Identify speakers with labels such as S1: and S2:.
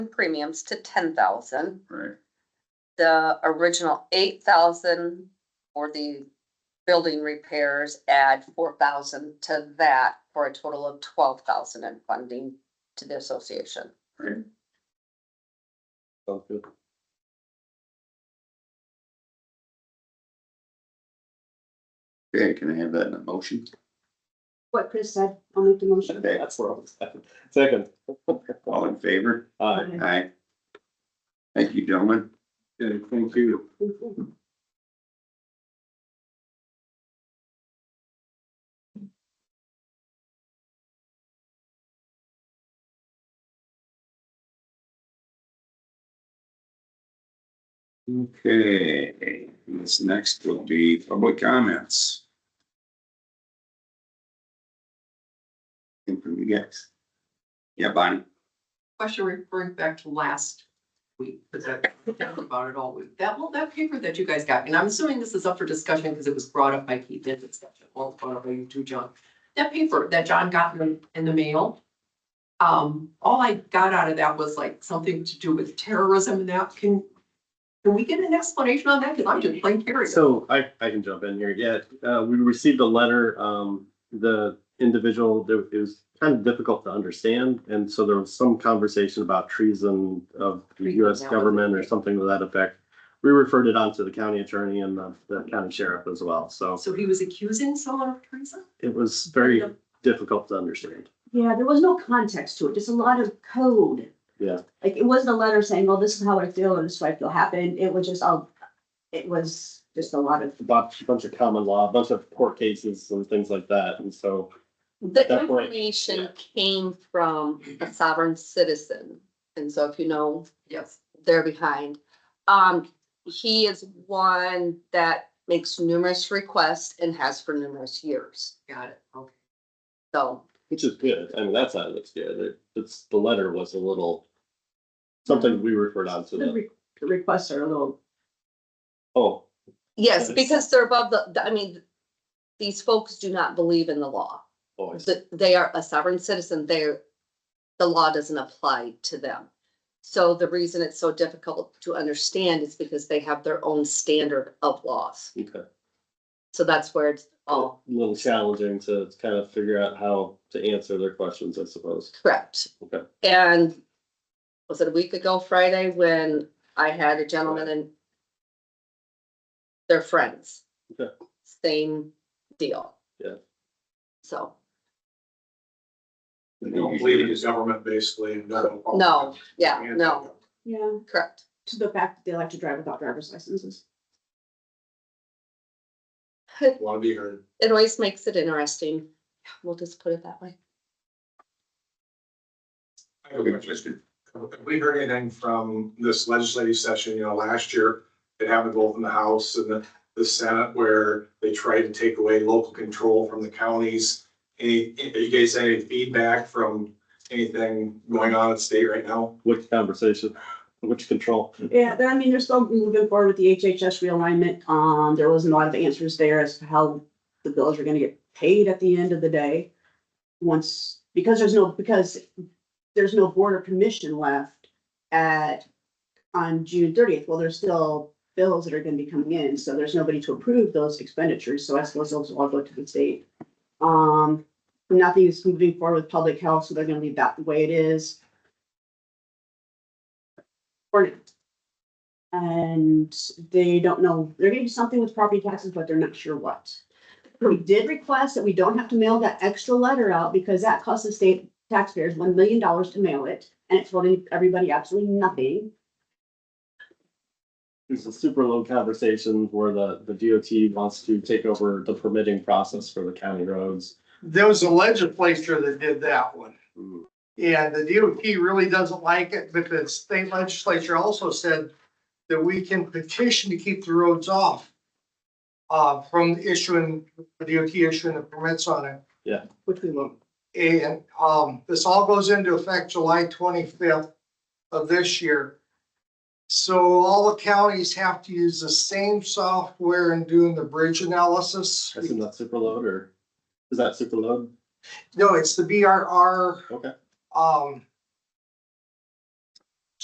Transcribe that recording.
S1: premiums to ten thousand.
S2: right?
S1: the original eight thousand or the building repairs, add four thousand to that for a total of twelve thousand in funding to the association.
S2: Right.
S3: Sounds good.
S2: Okay, can I have that in a motion?
S4: What Chris said, I'll make the motion.
S2: Okay,
S3: That's where I was at. Second.
S2: all in favor?
S3: Aye.
S2: Aye. Thank you, gentlemen. Okay, thank you. Okay, this next will be public comments. Anything from you guys? Yeah, Bonnie?
S5: question referring back to last week, because I've been thinking about it all week. That, well, that paper that you guys got, and I'm assuming this is up for discussion because it was brought up by Keith in discussion, well, brought up by you too, John. That paper that John got in, in the mail, um, all I got out of that was like something to do with terrorism and that. Can, can we get an explanation on that? Because I'm just plain curious.
S3: So I, I can jump in here. Yeah, uh, we received a letter, um, the individual, there- it was kind of difficult to understand. And so there was some conversation about treason of the US
S5: Treason, that was
S3: government
S5: it.
S3: or something to that effect. We referred it on to the county attorney and the, the county sheriff as well. So
S5: So he was accusing someone of treason?
S3: it was very difficult to understand.
S4: Yeah, there was no context to it, just a lot of code.
S3: Yeah.
S4: Like, it wasn't a letter saying, well, this is how I feel and this is what I feel happened. It was just, all. it was just a lot of,
S3: A bunch, bunch of common law, a bunch of court cases and things like that. And so
S1: The
S3: That point,
S1: information
S3: yeah.
S1: came from a sovereign citizen, and so if you know,
S5: Yes.
S1: they're behind. Um, he is one that makes numerous requests and has for numerous years,
S5: Got it. Okay.
S1: so.
S3: Which is good. I mean, that side looks good. It- It's, the letter was a little, something we referred on to
S4: the
S3: the,
S4: re- the requests are a little,
S3: oh,
S1: Yes,
S3: Yes.
S1: because they're above the, the- I mean, these folks do not believe in the law.
S3: boys.
S1: That they are a sovereign citizen, they're, the law doesn't apply to them. So the reason it's so difficult to understand is because they have their own standard of laws.
S3: Okay.
S1: So that's where it's
S3: A
S1: all
S3: little challenging to kind of figure out how to answer their questions, I suppose.
S1: correct.
S3: Okay.
S1: And was it a week ago Friday when I had a gentleman and their friends?
S3: Okay.
S1: Same deal.
S3: Yeah.
S1: So.
S6: They don't believe in government basically and don't.
S1: No, yeah, no,
S4: yeah,
S1: correct.
S4: to the fact that they like to drive without driver's licenses.
S1: It
S6: Want to be heard.
S1: always makes it interesting. We'll just put it that way.
S6: I have a question. Have we heard anything from this legislative session, you know, last year? It happened both in the House and the, the Senate where they tried to take away local control from the counties. Any, are you guys had any feedback from anything going on at state right now?
S3: Which conversation, which control?
S4: Yeah, then, I mean, they're still moving forward with the HHS realignment. Um, there wasn't a lot of answers there as to how the bills are gonna get paid at the end of the day. Once, because there's no, because there's no board or commission left at, on June thirtieth. Well, there's still bills that are gonna be coming in, so there's nobody to approve those expenditures, so I suppose those will all go to the state. Um, nothing is moving forward with public health, so they're gonna leave that the way it is. Or- and they don't know, they're gonna do something with property taxes, but they're not sure what. We did request that we don't have to mail that extra letter out because that costs the state taxpayers one million dollars to mail it, and it's holding everybody absolutely nothing.
S3: There's a super low conversation where the, the DOT wants to take over the permitting process for the county roads.
S7: There was a legislature that did that one.
S3: Mm.
S7: And the DOT really doesn't like it, but the state legislature also said that we can petition to keep the roads off. Uh, from issuing, the DOT issuing the permits on it.
S4: Which we won't.
S7: And, um, this all goes into effect July twenty-fifth of this year. So all the counties have to use the same software in doing the bridge analysis.
S3: I assume that's super load or is that super load?
S7: No, it's the BRR.
S3: Okay.
S7: Um,